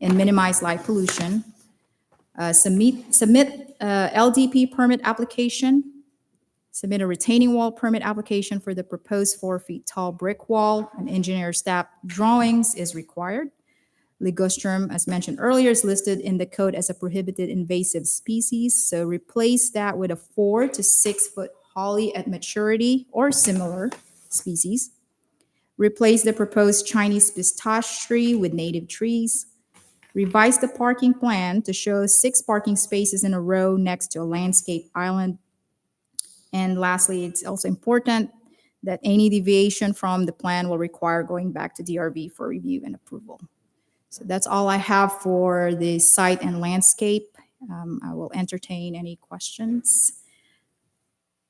and minimize light pollution. Uh, Submit, submit uh, LDP permit application. Submit a retaining wall permit application for the proposed four-feet-tall brick wall. An engineer staff drawings is required. Ligustrum, as mentioned earlier, is listed in the code as a prohibited invasive species. So replace that with a four to six-foot holly at maturity or similar species. Replace the proposed Chinese pistache tree with native trees. Revise the parking plan to show six parking spaces in a row next to a landscape island. And lastly, it's also important that any deviation from the plan will require going back to DRV for review and approval. So that's all I have for the site and landscape. Um, I will entertain any questions.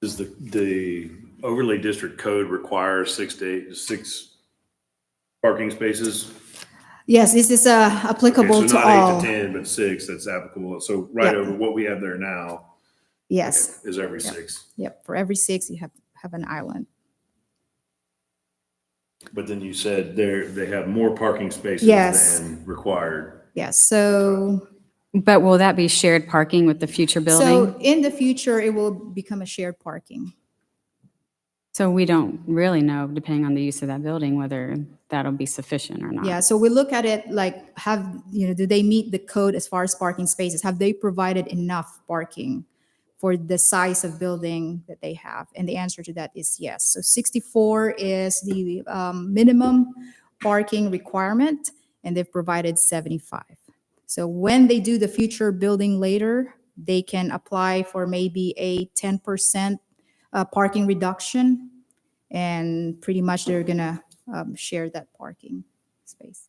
Is the, the overlay district code requires six to eight, six parking spaces? Yes, this is uh, Okay, so applicable to Not eight all. to 10, but six, that's applicable. So right Yeah. over what we have there now Yes, is every Yeah. six. yep, for every six, you have, have an island. But then you said there, they have more parking spaces Yes. than required. Yes, so But will that be shared parking with the future building? So in the future, it will become a shared parking. So we don't really know, depending on the use of that building, whether that'll be sufficient or not. Yeah, so we look at it like have, you know, do they meet the code as far as parking spaces? Have they provided enough parking for the size of building that they have? And the answer to that is yes. So 64 is the um, minimum parking requirement, and they've provided 75. So when they do the future building later, they can apply for maybe a 10% uh, parking reduction, and pretty much they're gonna um, share that parking space.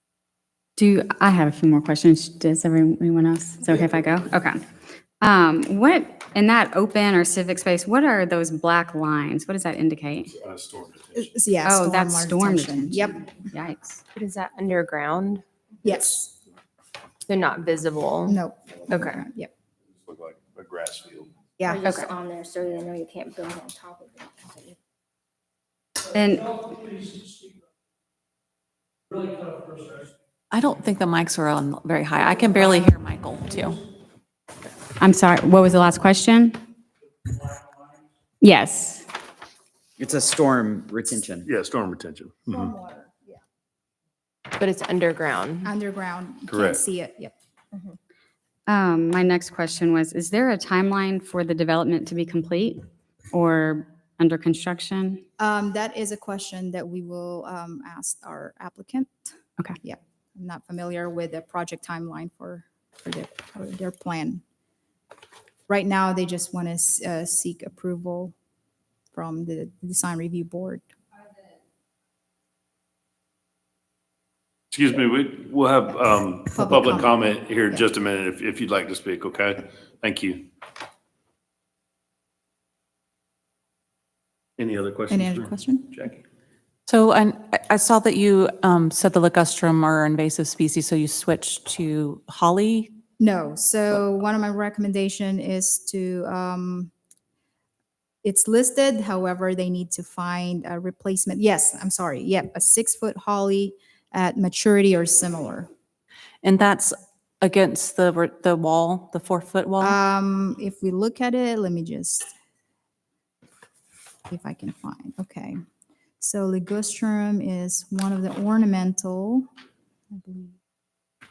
Do, I have a few more questions. Does everyone anyone else? Is it okay if I go? Okay. Um, What, in that open or civic space, what are those black lines? What does that indicate? Uh, storm detention. It's- Yeah. Oh, that's storm Yep, Yikes. But is that underground? yes, They're not visible. no. Okay. Yep, Look like a grass field. yeah. They're just okay. on there so they know you can't build on top of it. And I don't think the mics are on very high. I can barely hear Michael, too. I'm sorry, what was the last question? Yes. It's a storm retention. Yeah, storm retention. Mhm. Stormwater, yeah. But it's underground. Underground, you can't Correct. see it, yep. Um, my next question was, is there a timeline for the development to be complete or under construction? Um, that is a question that we will, um, ask our applicant. Okay. Yep, I'm not familiar with the project timeline for, for their, for their plan. Right now, they just want to, uh, seek approval from the design review board. Excuse me, we, we'll have, um, Public public comment. comment here in Yeah. just a minute if, if you'd like to speak, okay? Thank you. Any other questions? Any other for question? Jackie? So and I I saw that you um, said the ligustrum are invasive species, so you switched to holly. No, so one of my recommendation is to, um, it's listed, however, they need to find a replacement. Yes, I'm sorry, yep, a six-foot holly at maturity or similar. And that's against the, r- the wall, the four-foot wall? Um, if we look at it, let me just, if I can find, okay. So ligustrum is one of the ornamental. I believe.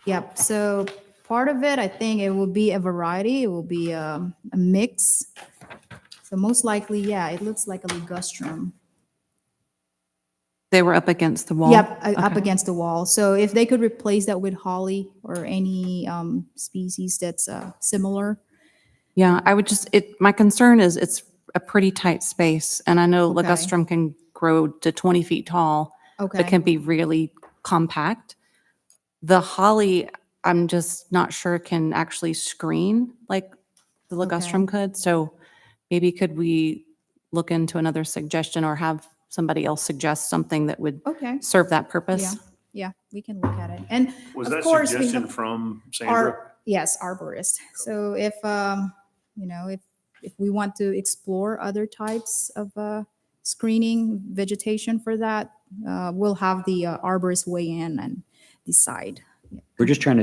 Yep, so part of it, I think it will be a variety, it will be um, a mix. So most likely, yeah, it looks like a ligustrum. They were up against the wall? Yep, uh, up Okay. against the wall. So if they could replace that with holly or any um, species that's uh, similar. Yeah, I would just, it, my concern is it's a pretty tight space, and I know Okay. ligustrum can grow to 20 feet tall. Okay. It can be really compact. The holly, I'm just not sure can actually screen like the Okay. ligustrum could. So maybe could we look into another suggestion or have somebody else suggest something that would Okay. serve that purpose? Yeah, we can look at it. And Was Of that course, we suggestion have from Sandra? our, yes, arborist. So if, um, you know, if, if we want to explore other types of, uh, screening vegetation for that, uh, we'll have the uh, arborist weigh in and decide We're just trying to